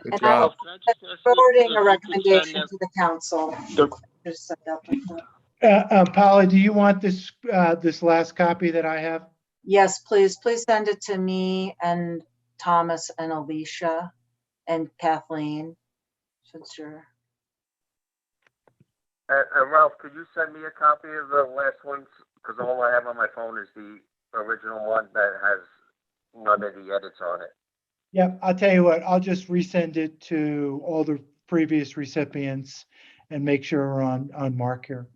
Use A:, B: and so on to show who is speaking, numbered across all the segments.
A: Good
B: And I
A: job.
B: will
C: Can I just ask you
B: forwarding a
C: if you could send
B: recommendation
C: that-
B: to the council.
C: the-
B: Just send out the-
D: Uh, uh, Polly, do you want this, uh, this last copy that I have?
B: Yes, please, please send it to me and Thomas and Alicia and Kathleen. Since you're,
E: And and Ralph, could you send me a copy of the last ones? Because all I have on my phone is the original one that has none of the edits on it.
D: Yep, I'll tell you what, I'll just resend it to all the previous recipients and make sure we're on, on mark here.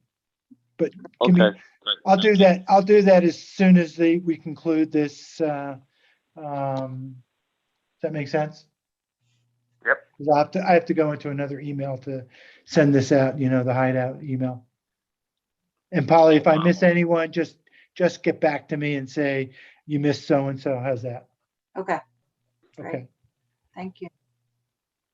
D: But give me,
C: Okay.
D: I'll do that, I'll do that as soon as the, we conclude this, uh, um, does that make sense?
E: Yep.
D: 'Cause I have to, I have to go into another email to send this out, you know, the hideout email. And Polly, if I miss anyone, just, just get back to me and say, you missed so-and-so, how's that?
B: okay, Great.
D: Okay.
B: thank you.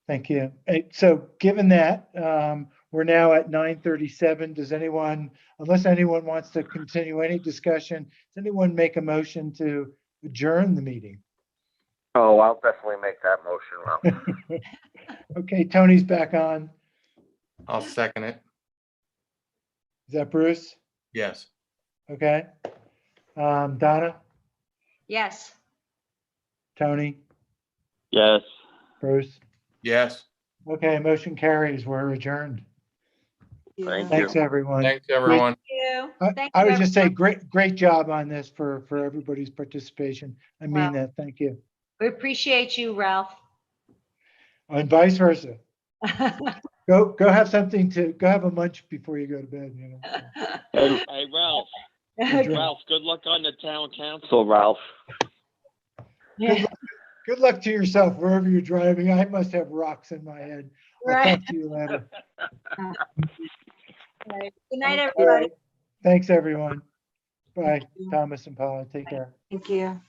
D: Thank you. Uh, So given that, um, we're now at nine thirty-seven. Does anyone, unless anyone wants to continue any discussion, does anyone make a motion to adjourn the meeting?
E: Oh, I'll definitely make that motion, Ralph.
D: Okay, Tony's back on.
A: I'll second it.
D: Is that Bruce?
A: Yes.
D: Okay. Um, Donna,
F: Yes.
D: Tony,
C: Yes.
D: Bruce.
A: Yes.
D: Okay, motion carries. We're adjourned.
C: Thank
B: Yeah.
C: you.
D: Thanks, everyone.
A: Thanks, everyone.
F: You.
D: I
F: Thank
D: I
F: you,
D: would just say,
F: everyone.
D: great, great job on this for, for everybody's participation. I
F: Wow.
D: mean that. Thank you.
F: We appreciate you, Ralph.
D: And vice versa. Go, go have something to, go have a munch before you go to bed, you know.
C: Hey, hey, Ralph,
D: Good
C: Ralph, good luck on the town council, Ralph.
F: Yeah,
D: Good luck to yourself wherever you're driving. I must have rocks in my head. I'll
F: Right.
D: talk to you later.
F: Good night,
D: All
F: everybody.
D: right. Thanks, everyone. Bye,
B: Thank you.
D: Thomas and Paula. Take care.
B: Thank you.